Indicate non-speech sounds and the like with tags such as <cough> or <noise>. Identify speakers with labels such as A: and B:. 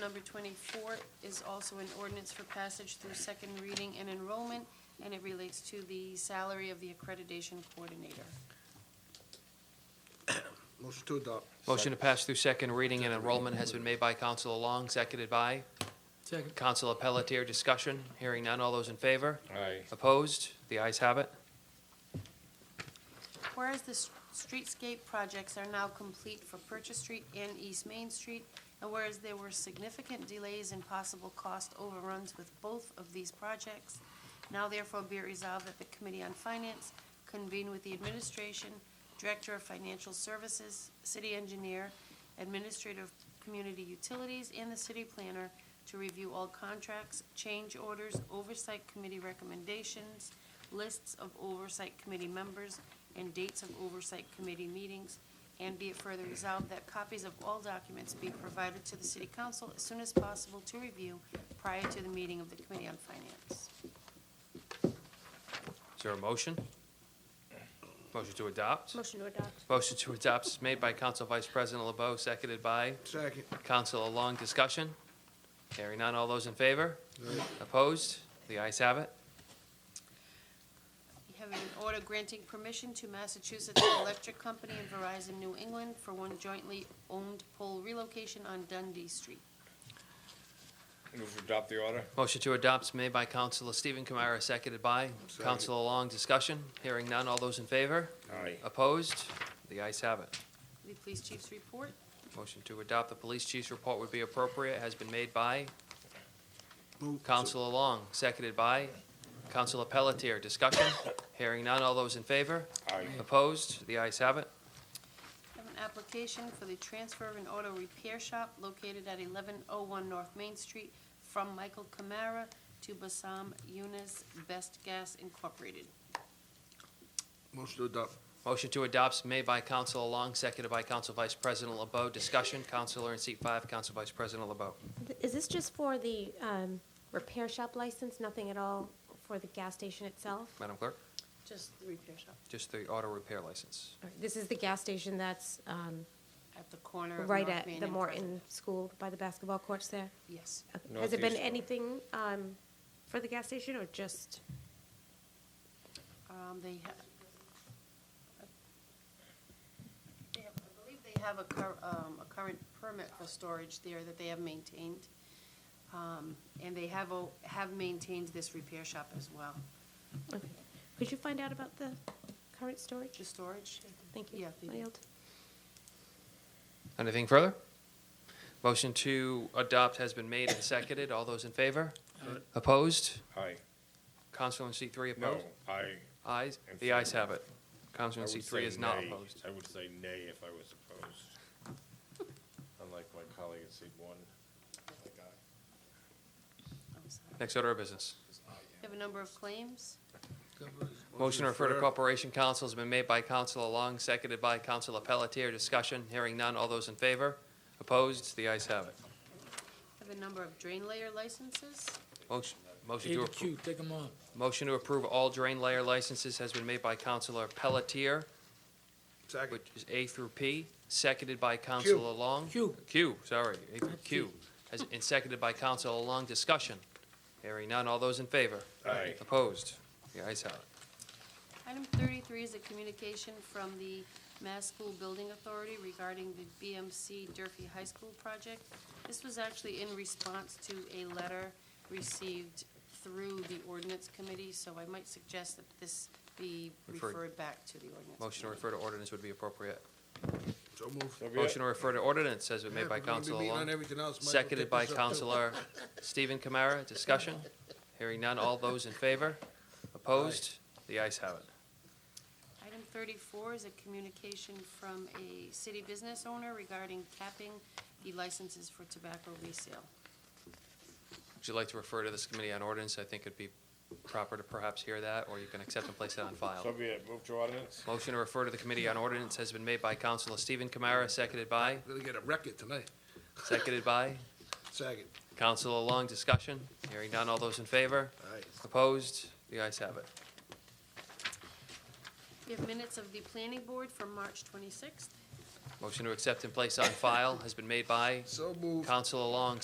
A: number twenty-four is also an ordinance for passage through second reading and enrollment, and it relates to the salary of the accreditation coordinator.
B: Motion to adopt.
C: Motion to pass through second reading and enrollment has been made by Councilor Long, seconded by
D: Second.
C: Councilor Pelletier. Discussion, hearing none. All those in favor?
E: Aye.
C: Opposed? The ayes have it.
A: Whereas the s- streetscape projects are now complete for Purchase Street and East Main Street, and whereas there were significant delays and possible cost overruns with both of these projects, now therefore be it resolved that the Committee on Finance convene with the administration, Director of Financial Services, City Engineer, Administrator of Community Utilities, and the City Planner to review all contracts, change orders, oversight committee recommendations, lists of oversight committee members, and dates of oversight committee meetings, and be it further resolved that copies of all documents be provided to the city council as soon as possible to review prior to the meeting of the Committee on Finance.
C: Is there a motion? Motion to adopt?
F: Motion to adopt.
C: Motion to adopt is made by Council Vice President LeBeau, seconded by
B: Second.
C: Councilor Long. Discussion, hearing none. All those in favor? Opposed? The ayes have it.
A: We have an order granting permission to Massachusetts Electric Company and Verizon New England for one jointly owned pole relocation on Dundee Street.
E: Move to adopt the order?
C: Motion to adopt is made by Councilor Stephen Kamara, seconded by
B: Second.
C: Councilor Long. Discussion, hearing none. All those in favor?
E: Aye.
C: Opposed? The ayes have it.
A: The police chief's report.
C: Motion to adopt the police chief's report would be appropriate has been made by
B: Move.
C: Councilor Long, seconded by Councilor Pelletier. Discussion? Hearing none. All those in favor?
E: Aye.
C: Opposed? The ayes have it.
A: Have an application for the transfer of an auto repair shop located at eleven oh one North Main Street from Michael Camara to Basam Yunus Best Gas Incorporated.
B: Motion to adopt.
C: Motion to adopt is made by Councilor Long, seconded by Council Vice President LeBeau. Discussion? Councilor in seat five, Council Vice President LeBeau.
F: Is this just for the um, repair shop license, nothing at all for the gas station itself?
C: Madam Clerk,
A: Just the repair shop.
C: just the auto repair license.
F: All right, This is the gas station that's um,
A: At the corner of North
F: right
A: Main
F: at the
A: and
F: Morton
A: Pleasant.
F: School by the basketball courts there?
A: Yes.
F: Okay. Has it been
E: Northeast.
F: anything um, for the gas station or just,
A: Um, they have. They have, I believe they have a cur, um, a current permit for storage there that they have maintained. Um, and they have, o- have maintained this repair shop as well.
F: okay. could you find out about the current storage?
A: The storage?
F: Thank you.
A: Yeah, they do.
F: I yield.
C: Anything further? Motion to adopt has been made and seconded. All those in favor? Opposed?
E: Aye.
C: Councilor in seat three
E: No,
C: opposed?
E: aye.
C: Ayes?
E: In
C: The ayes have it. Councilor in
E: I would
C: seat
E: say
C: three is not
E: nay.
C: opposed.
E: I would say nay if I was opposed. <laughs> Unlike my colleague at seat one.
A: I'm sorry.
C: Next order of business.
A: We have a number of claims.
C: Motion to refer to Corporation Council has been made by Councilor Long, seconded by Councilor Pelletier. Discussion, hearing none. All those in favor? Opposed? The ayes have it.
A: We Have a number of drain layer licenses.
C: Motion motion
D: A
C: to
D: to
C: approve.
D: Q, take them off.
C: Motion to approve all drain layer licenses has been made by Councilor Pelletier,
B: Second.
C: which is A through P, seconded by Councilor Long.
D: Q.
C: Q, sorry, A through
D: Not
C: Q, has- and seconded by Councilor Long. Discussion, hearing none. All those in favor?
E: Aye.
C: Opposed? The ayes have it.
A: Item thirty-three is a communication from the Mass School Building Authority regarding the BMC Durfee High School project. This was actually in response to a letter received through the ordinance committee, so I might suggest that this be
C: Referred.
A: referred back to the ordinance.
C: Motion to
A: committee.
C: refer to ordinance would be appropriate.
B: So moved.
E: So be it.
C: Motion to refer to ordinance has been made by
B: We're gonna be
C: Councilor
B: meeting
C: Long.
B: on everything else. Might as well
C: Seconded
B: take
C: by
B: this up, too.
C: Counselor Stephen Kamara. Discussion? Hearing none. All those in favor? Opposed? The ayes have it.
A: Item thirty-four is a communication from a city business owner regarding capping the licenses for tobacco resale.
C: Would you like to refer to this committee on ordinance? I think it'd be proper to perhaps hear that, or you can accept and place it on
E: So
C: file.
E: be it. Move to ordinance?
C: Motion to refer to the committee on ordinance has been made by Counselor Stephen Kamara, seconded by,
B: We're Gonna get a record tonight.
C: seconded by
B: Second.
C: Counselor Long. Discussion? Hearing none. All those in favor?
B: Aye.
C: Opposed? The ayes have it.
A: We have minutes of the planning board from March twenty-sixth.
C: Motion to accept and place on file has been made by
B: So moved.
C: Counselor Long,